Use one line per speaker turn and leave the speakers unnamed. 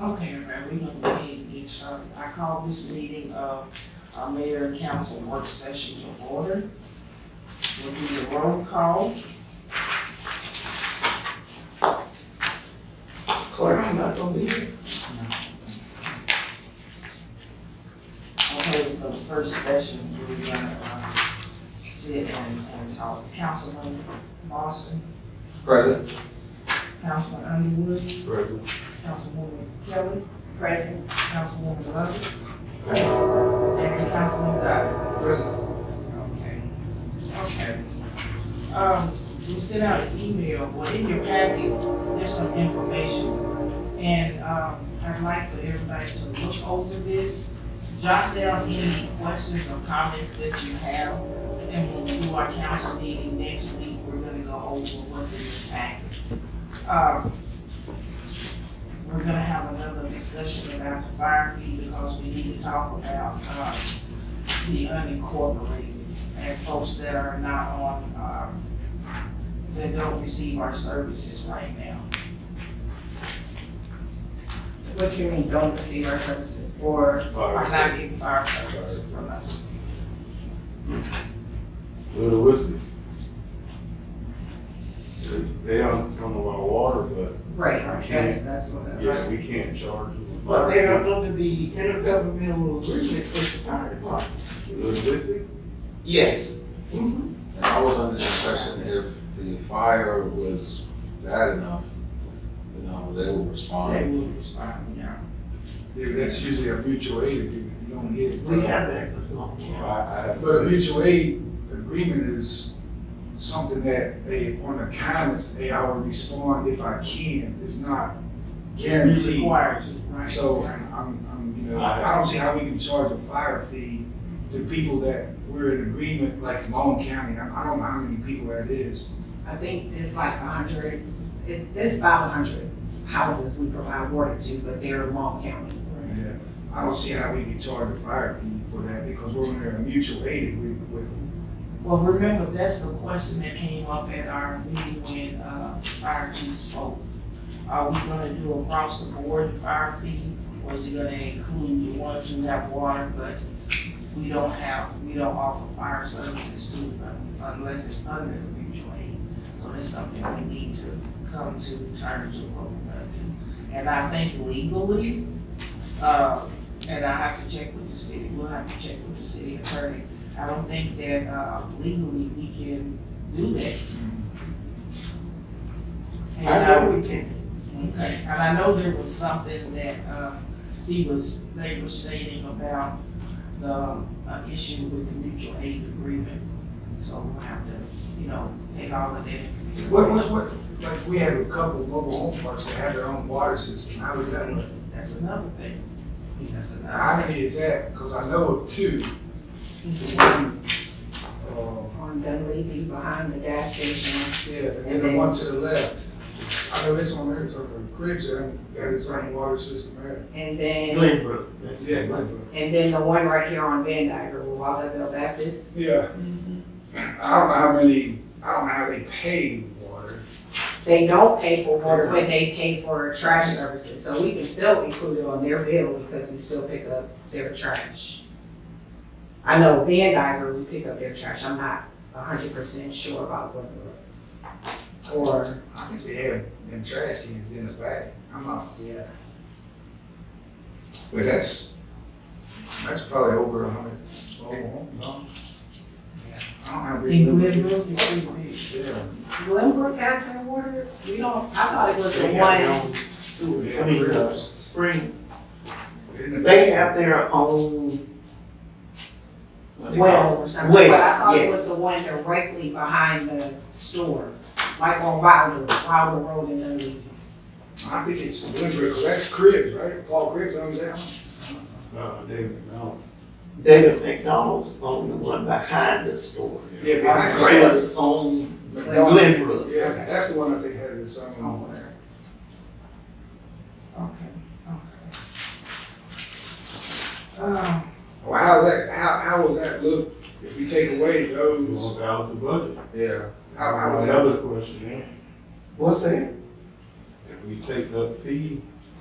Okay, everybody, we can go ahead and get started. I call this meeting of our mayor and council work session to order. We'll do the roll call. Clerk, I'm not gonna be here. Okay, for the first session, we're gonna, uh, sit and, and talk. Councilman Boston,
Present.
Councilman Underwood,
Present.
Councilwoman Kelly,
Present.
Councilwoman Lovett. And Councilman Dodd.
Present.
Okay. Okay. Um, we sent out an email, well, in your packet, there's some information. And, um, I'd like for everybody to look over this, jot down any questions or comments that you have. And when we do our council meeting next week, we're gonna go over what's in this packet. Um, we're gonna have another discussion about the fire fee because we need to talk about, uh, the unincorporated and folks that are not on, um, that don't receive our services right now.
What you mean, don't receive our services, or,
Are
Fire.
not getting fire services from us.
Little Whiskey. They own some of our water, but
right, that's, that's what it
yeah,
is.
we can't charge them.
But they are under the intergovernmental agreement with the fire department. Mm-hmm.
Little Whiskey?
Yes.
And I was under the impression if the fire was bad enough, you know, they would
They
respond.
will respond, yeah.
Yeah, that's usually a mutual aid agreement, you don't get it.
We have that with long
I,
term.
I haven't
But a
seen-
mutual aid agreement is something that they, on the kindness, hey, I will respond if I can, it's not
It
guaranteed.
Requires you, right?
So
right.
I'm, I'm, you know, I don't see how we can charge a fire fee to people that we're in agreement, like Long County, I I don't know how many people that is.
I think it's like a hundred, it's, it's about a hundred houses we provide water to, but they're in Long County.
Yeah, I don't see how we can charge a fire fee for that because we're under a mutual aid agreement with them.
Well, remember, that's the question that came up at our meeting when, uh, fire chief spoke. Are we gonna do across the board fire fee, or is it gonna include the ones who have water, but we don't have, we don't offer fire services to them unless it's under the mutual aid? So that's something we need to come to terms with what we're gonna do. And I think legally, uh, and I have to check with the city, we'll have to check with the city attorney I don't think that uh, legally we can do that.
I
And
know we can,
Okay, and I know there was something that, um, he was, they were stating about the, uh, issue with the mutual aid agreement. So we'll have to, you know, take all of that into
What, what,
consideration.
what, like, we have a couple of mobile home parks that have their own water system, how does that work?
That's another thing. That's
How
another thing.
many is that? Cause I know of two. The one, uh,
On Dunleavy, behind the gas station,
yeah, and then the one to the left. I know it's on there, it's on the cribs, and that is on water system there.
and then,
Glenbrook, that's
Yeah,
it.
Glenbrook.
and then the one right here on Van Dyke, where Wallerville Baptist.
Yeah,
Mm-hmm.
I don't know how many, I don't know how they pay water.
They don't pay for water, but they pay for trash services, so we can still include it on their bill because we still pick up their trash. I know Van Diver, we pick up their trash, I'm not a hundred percent sure about what. the- Or,
I think they have them trash cans in the back. I'm not,
yeah,
but that's, that's probably over a hundred. Oh, no. I don't have. big
In
numbers.
Glenbrook, it's pretty big.
Yeah.
Glenbrook has their water, we don't, I thought it was the
They have their
one,
own sewer,
Yeah.
I mean, uh, spring,
In the
they
back.
have their own,
well or something,
Well,
but I thought it was
yes.
the one directly behind the store, like on Wilder, Wilder Road in Dunedin.
I think it's deliberate, 'cause that's Cribs, right? Paul Cribs owns that one.
Uh, David, no.
David McDonald's on the one behind the store.
Yeah,
The
Cribs.
store's on
McDonald's.
Glenbrook.
Yeah, that's the one I think has its
Mm.
own.
Oh.
Okay, okay. Um,
Well, how's that, how, how would that look if we take away
You want
those?
to balance the budget?
Yeah. How, how would that?
Another question, yeah.
What's that?
If we take the fee